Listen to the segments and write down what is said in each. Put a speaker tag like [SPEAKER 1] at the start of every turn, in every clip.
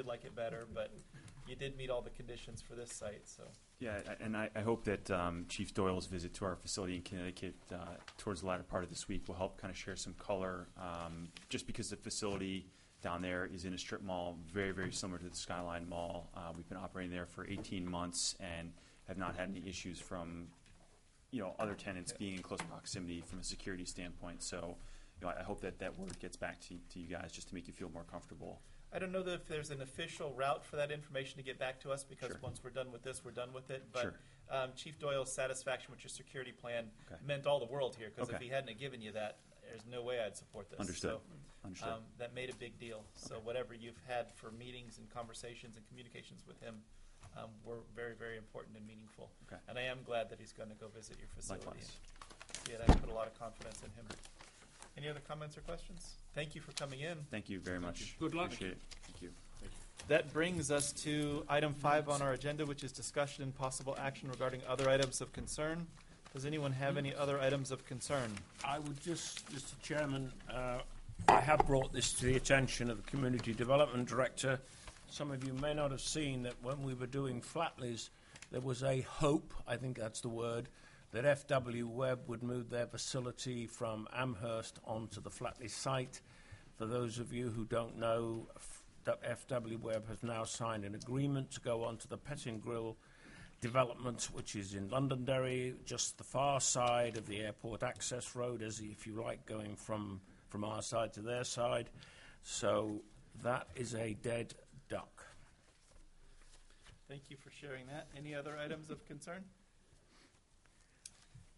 [SPEAKER 1] did like it better, but you did meet all the conditions for this site, so.
[SPEAKER 2] Yeah, a- and I, I hope that um, Chief Doyle's visit to our facility in Connecticut uh, towards the latter part of this week will help kind of share some color, um, just because the facility down there is in a strip mall, very, very similar to the Skyline Mall. Uh, We've been operating there for 18 months and have not had any issues from, you know, other tenants being in close proximity from a security standpoint. So, you know, I I hope that that word gets back to, to you guys, just to make you feel more comfortable.
[SPEAKER 1] I don't know that if there's an official route for that information to get back to us, because
[SPEAKER 2] Sure.
[SPEAKER 1] once we're done with this, we're done with it. But
[SPEAKER 2] Sure.
[SPEAKER 1] um, Chief Doyle's satisfaction with your security plan
[SPEAKER 2] Okay.
[SPEAKER 1] meant all the world here, because if
[SPEAKER 2] Okay.
[SPEAKER 1] he hadn't have given you that, there's no way I'd support this.
[SPEAKER 2] Understood,
[SPEAKER 1] So,
[SPEAKER 2] understood.
[SPEAKER 1] um, That made a big deal. So whatever you've had for meetings and conversations and communications with him um, were very, very important and meaningful.
[SPEAKER 2] Okay.
[SPEAKER 1] And I am glad that he's going to go visit your facility.
[SPEAKER 2] Likewise.
[SPEAKER 1] Yeah, I put a lot of confidence in him. Any other comments or questions? Thank you for coming in.
[SPEAKER 2] Thank you very much.
[SPEAKER 3] Good luck.
[SPEAKER 2] Appreciate it. Thank you.
[SPEAKER 1] That brings us to item five on our agenda, which is discussion and possible action regarding other items of concern. Does anyone have any other items of concern?
[SPEAKER 3] I would just, Mr. Chairman, uh, I have brought this to the attention of the Community Development Director. Some of you may not have seen that when we were doing Flatleys, there was a hope, I think that's the word, that FW Webb would move their facility from Amherst onto the Flatley site. For those of you who don't know, F- that FW Webb has now signed an agreement to go onto the Petting Grill development, which is in Londonderry, just the far side of the airport access road, as if you like, going from, from our side to their side. So that is a dead duck.
[SPEAKER 1] Thank you for sharing that. Any other items of concern?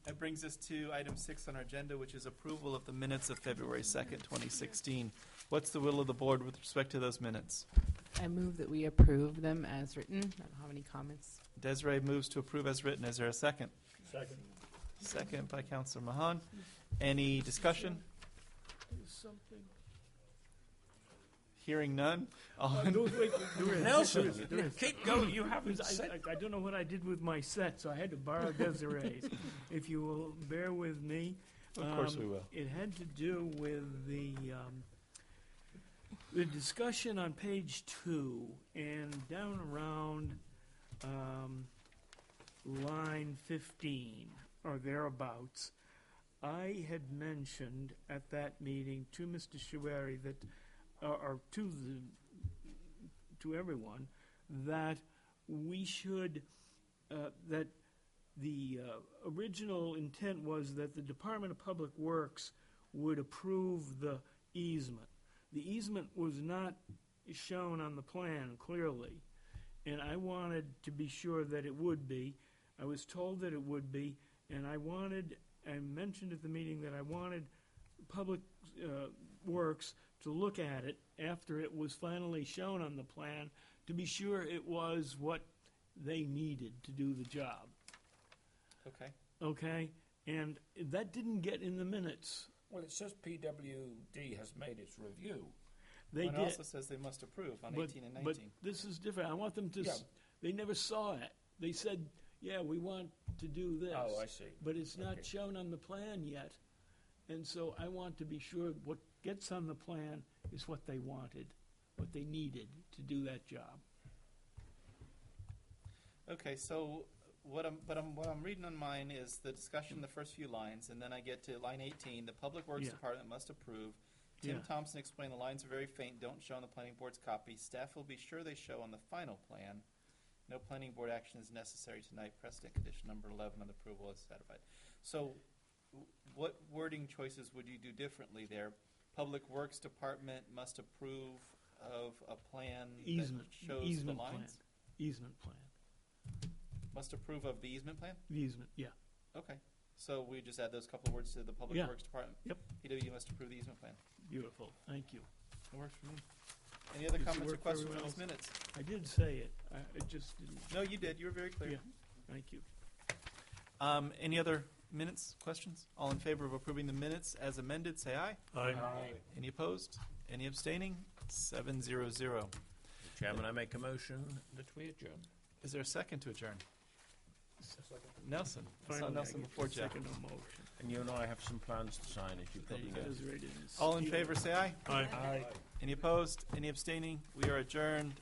[SPEAKER 1] That brings us to item six on our agenda, which is approval of the minutes of February second, twenty sixteen. What's the will of the board with respect to those minutes?
[SPEAKER 4] I move that we approve them as written. I don't have any comments.
[SPEAKER 1] Desiree moves to approve as written. Is there a second? Second. Second by Counselor Mahan. Any discussion? Hearing none. All in-
[SPEAKER 5] Those- wait, there is,
[SPEAKER 3] Nelson,
[SPEAKER 5] there is, there is.
[SPEAKER 3] Keep going, you haven't
[SPEAKER 5] I,
[SPEAKER 3] said.
[SPEAKER 5] I- I don't know what I did with my set, so I had to borrow Desiree's. If you will bear with me.
[SPEAKER 1] Of course we
[SPEAKER 5] Um,
[SPEAKER 1] will.
[SPEAKER 5] It had to do with the, um, the discussion on page two and down around, um, line fifteen or thereabouts. I had mentioned at that meeting to Mr. Shuari that, or, or to the, to everyone, that we should, uh, that the uh, original intent was that the Department of Public Works would approve the easement. The easement was not shown on the plan clearly, and I wanted to be sure that it would be. I was told that it would be, and I wanted, I mentioned at the meeting that I wanted Public uh, Works to look at it after it was finally shown on the plan to be sure it was what they needed to do the job
[SPEAKER 1] Okay.
[SPEAKER 5] okay? And that didn't get in the minutes.
[SPEAKER 3] Well, it says PWD has made its review.
[SPEAKER 5] They
[SPEAKER 1] One
[SPEAKER 5] did,
[SPEAKER 1] also says they must approve on
[SPEAKER 5] but,
[SPEAKER 1] eighteen and
[SPEAKER 5] but
[SPEAKER 1] nineteen.
[SPEAKER 5] this is different. I want them to. s- They never saw it. They said, "Yeah, we want to do this."
[SPEAKER 3] Oh, I see.
[SPEAKER 5] But it's not
[SPEAKER 3] Okay.
[SPEAKER 5] shown on the plan yet, and so I want to be sure what gets on the plan is what they wanted, what they needed to do that job.
[SPEAKER 1] Okay, so what I'm, but I'm, what I'm reading on mine is the discussion, the first few lines, and then I get to line eighteen, the Public Works
[SPEAKER 5] Yeah.
[SPEAKER 1] Department must approve. Tim
[SPEAKER 5] Yeah.
[SPEAKER 1] Thompson explained the lines are very faint, don't show on the planning board's copy, staff will be sure they show on the final plan. No planning board action is necessary tonight, precedent condition number eleven on the approval is satisfied. So, w- what wording choices would you do differently there? Public Works Department must approve of a plan that
[SPEAKER 5] Easement,
[SPEAKER 1] shows the
[SPEAKER 5] easement plan,
[SPEAKER 1] lines?
[SPEAKER 5] easement plan,
[SPEAKER 1] Must approve of the easement plan?
[SPEAKER 5] The easement. Yeah,
[SPEAKER 1] Okay, so we just add those couple of words to the Public
[SPEAKER 5] Yeah.
[SPEAKER 1] Works Department?
[SPEAKER 5] Yep.
[SPEAKER 1] PW must approve the easement plan.
[SPEAKER 5] beautiful. Thank you.
[SPEAKER 1] That works for me. Any other
[SPEAKER 5] Does it
[SPEAKER 1] comments or
[SPEAKER 5] work for
[SPEAKER 1] questions on
[SPEAKER 5] everyone
[SPEAKER 1] these minutes?
[SPEAKER 5] I did say it. I, I just didn't.
[SPEAKER 1] No, you did, you were very clear.
[SPEAKER 5] Yeah. Thank you.
[SPEAKER 1] Um, any other minutes, questions? All in favor of approving the minutes as amended, say aye. Any opposed? Any abstaining? Seven zero zero.
[SPEAKER 3] Chairman, I make a motion that we adjourn.
[SPEAKER 1] Is there a second to adjourn? Nelson, I saw
[SPEAKER 5] Finally, I
[SPEAKER 1] Nelson
[SPEAKER 5] get
[SPEAKER 1] before
[SPEAKER 5] the
[SPEAKER 1] Jeff.
[SPEAKER 5] Second motion.
[SPEAKER 3] And you and I have some plans to sign, if you probably
[SPEAKER 1] you
[SPEAKER 3] know.
[SPEAKER 5] Those right in.
[SPEAKER 1] All in favor, say aye.
[SPEAKER 3] Aye.
[SPEAKER 1] Any opposed? Any abstaining? We are adjourned